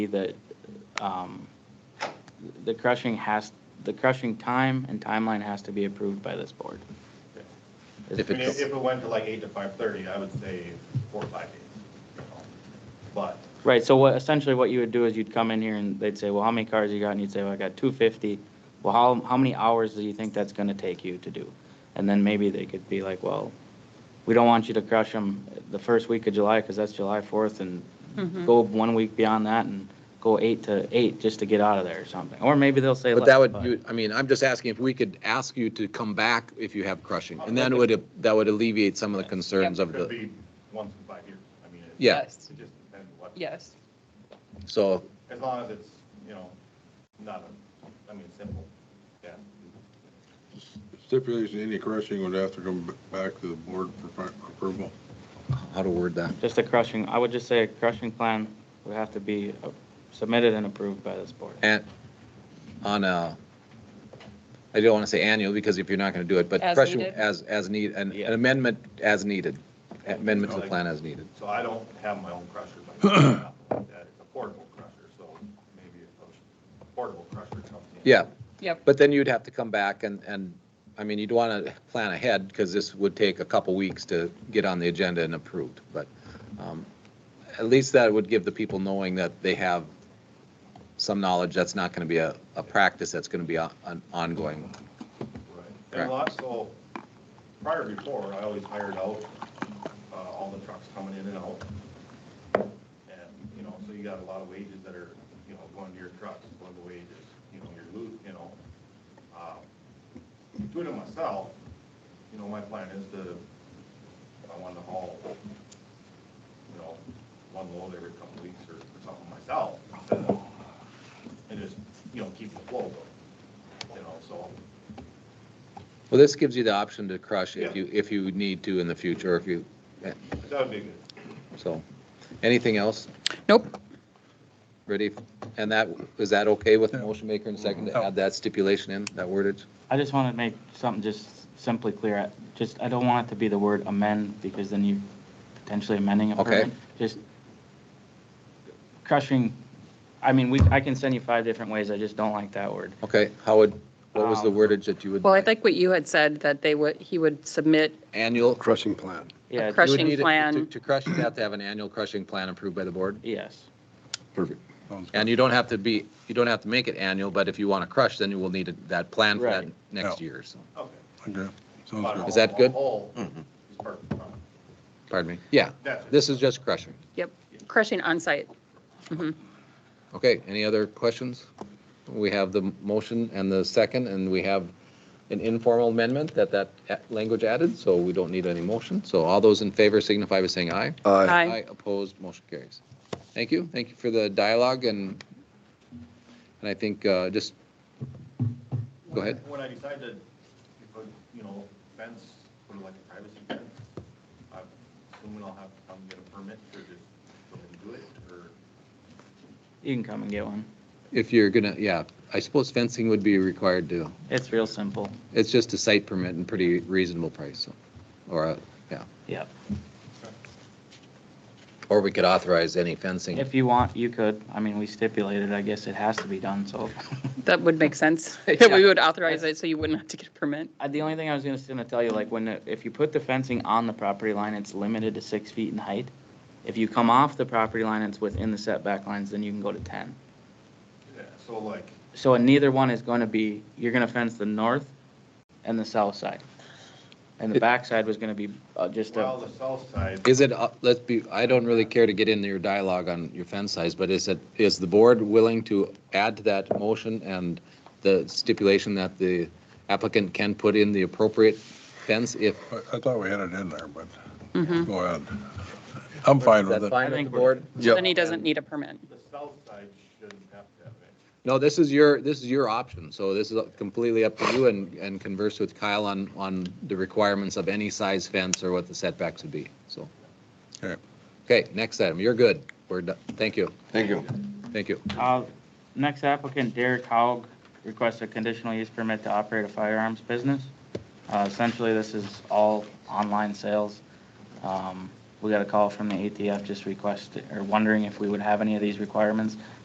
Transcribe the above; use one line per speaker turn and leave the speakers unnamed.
that um, the crushing has, the crushing time and timeline has to be approved by this board.
If
I mean,
it's,
if it went to like eight to five thirty, I would say four or five days. you know. But
Right, so what, essentially what you would do is you'd come in here and they'd say, well, how many cars you got? And you'd say, well, I got two fifty. Well, how, how many hours do you think that's gonna take you to do? And then maybe they could be like, well, we don't want you to crush them the first week of July, because that's July fourth, and
Mm-hmm.
go one week beyond that and go eight to eight, just to get out of there or something. Or maybe they'll say.
but that
less,
would, you- I mean, I'm just asking if we could ask you to come back if you have crushing. And then
Okay.
it would, that would alleviate some of the concerns
it
of
could
the,
be once in five years. I mean, it-
Yeah.
It just depends what,
Yes,
so,
as long as it's, you know, not a, I mean, simple, yeah.
Stipulation, any crushing would have to come b- back to the board for fi- approval.
how to word that?
Just a crushing, I would just say a crushing plan would have to be uh, submitted and approved by this board.
And on a, I don't want to say annual because if you're not going to do it, but
As
crushing
needed.
as, as need, an
Yeah.
an amendment as needed, amendment to the plan as needed.
So I don't have my own crusher, but I have one like that. it's a portable crusher, so maybe a- a portable crusher comes in.
Yeah,
yep,
but then you'd have to come back and, and, I mean, you'd want to plan ahead because this would take a couple weeks to get on the agenda and approved. But um, at least that would give the people knowing that they have some knowledge that's not going to be a, a practice that's going to be a- an ongoing.
Right.
Correct.
And lots, so prior before, I always hired out, uh, all the trucks coming in and out. And, you know, so you got a lot of wages that are, you know, going to your trucks, going to wages, you know, you're losing, you know. Um, Doing it myself, you know, my plan is to, I want to haul, you know, one load every couple of weeks or or something myself. instead of- And just, you know, keep the flow going, you know, so.
Well, this gives you the option to crush if
Yeah.
you, if you need to in the future, if you,
That would be good.
so. Anything else?
nope,
Ready? And that, is that okay with the motion maker and second to add that stipulation in, that wordage?
I just want to make something just simply clear. I- Just, I don't want it to be the word amend because then you're potentially amending a
Okay.
permit. Just crushing, I mean, we, I can send you five different ways. I just don't like that word.
Okay, how would, what was the
Um,
wordage that you would?
well, I think what you had said, that they would, he would submit,
Annual.
Crushing plan.
Yeah,
crush-
You would
Crushing
need it- to-
plan.
To crush, you have to have an annual crushing plan approved by the board.
Yes.
Perfect. And you don't have to be, you don't have to make it annual, but if you want to crush, then you will need it- that plan for that
Right.
next
Yeah.
year, so.
Okay.
Okay,
But
sounds
Is
good.
that good?
all- all
Mhm.
is perfect.
Pardon me. Yeah,
That's it.
this is just crushing.
yep, crushing onsite. Mhm.
Okay, any other questions? We have the motion and the second, and we have an informal amendment that that a- language added, so we don't need any motion. So all those in favor signify by saying aye.
Aye.
Opposed, motion carries. Thank you, thank you for the dialogue and, and I think uh, just, Go ahead.
When I decide to put, you know, fence, sort of like a privacy fence, I'm assuming I'll have to come get a permit or just go ahead and do it, or?
You can come and get one.
if you're gonna, yeah, I suppose fencing would be required to,
It's real simple.
it's just a site permit and pretty reasonable price, so, or, a- yeah.
Yep.
Or we could authorize any fencing.
If you want, you could. I mean, we stipulated, I guess it has to be done, so.
That would make sense,
Yeah.
we would authorize it, so you wouldn't have to get a permit.
Uh, The only thing I was gonna, gonna tell you, like, when, it- if you put the fencing on the property line, it's limited to six feet in height. If you come off the property line, it's within the setback lines, then you can go to ten.
Yeah, So like,
So and neither one is gonna be, you're gonna fence the north and the south side. And the back side was gonna be uh, just
well,
a,
the south side,
Is it, uh, let's be, I don't really care to get into your dialogue on your fence size, but is it, is the board willing to add to that motion and the stipulation that the applicant can put in the appropriate fence if?
I- I thought we had it in there, but
Mhm.
go ahead. I'm fine with it.
I
fine
with the think we're- board?
Then he doesn't need a permit.
the south side shouldn't have to have it.
No, this is your, this is your option, so this is completely up to you and, and converse with Kyle on, on the requirements of any size fence or what the setbacks would be, so.
Okay.
Okay, next item, you're good, we're done, thank you,
Thank you.
thank you.
uh, next applicant Derek Haug requests a conditional use permit to operate a firearms business. Uh, essentially, this is all online sales. Um, we got a call from the ATF just requesting, or wondering if we would have any of these requirements.